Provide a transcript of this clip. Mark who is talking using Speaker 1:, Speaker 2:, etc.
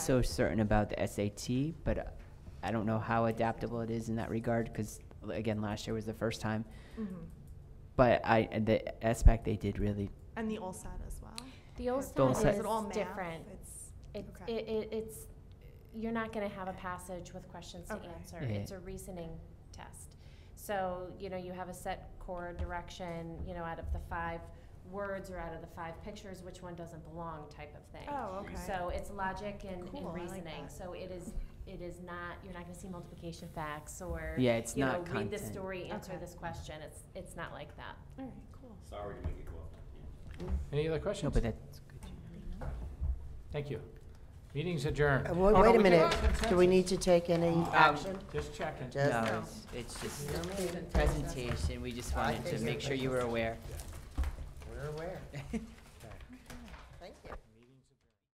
Speaker 1: so certain about the SAT, but I don't know how adaptable it is in that regard, because again, last year was the first time.
Speaker 2: Mhm.
Speaker 1: But I, the SPAC, they did really,
Speaker 2: And the OLSAT as well.
Speaker 3: The
Speaker 1: Don't
Speaker 3: OLSAT
Speaker 1: say-
Speaker 3: is
Speaker 2: it all math?
Speaker 3: different.
Speaker 2: It's-
Speaker 3: It,
Speaker 2: Okay.
Speaker 3: it, it, it's, you're not gonna have a passage with questions to
Speaker 2: Okay.
Speaker 3: answer.
Speaker 1: Yeah.
Speaker 3: It's a reasoning test. So, you know, you have a set core direction, you know, out of the five words or out of the five pictures, which one doesn't belong type of thing.
Speaker 2: Oh, okay.
Speaker 3: So it's logic and,
Speaker 2: Cool, I
Speaker 3: and
Speaker 2: like
Speaker 3: reasoning.
Speaker 2: that.
Speaker 3: So it is, it is not, you're not gonna see multiplication facts or,
Speaker 1: yeah, it's
Speaker 3: you know,
Speaker 1: not
Speaker 3: read
Speaker 1: content.
Speaker 3: this story, answer
Speaker 2: Okay.
Speaker 3: this question. It's, it's not like that.
Speaker 2: All right, cool.
Speaker 4: Sorry to make you go up.
Speaker 5: Any other
Speaker 1: No,
Speaker 5: questions?
Speaker 1: but that's good. to know.
Speaker 5: Thank you. Meeting's adjourned.
Speaker 6: Uh, Wait
Speaker 5: Oh, no,
Speaker 6: wait a
Speaker 5: we did-
Speaker 6: minute, do we need to take any action?
Speaker 5: Just checking.
Speaker 6: Just-
Speaker 1: No,
Speaker 6: No.
Speaker 1: it's, it's just presentation, we just
Speaker 6: I
Speaker 1: wanted to
Speaker 6: think
Speaker 1: make
Speaker 6: it's-
Speaker 1: sure you were aware.
Speaker 6: We're aware.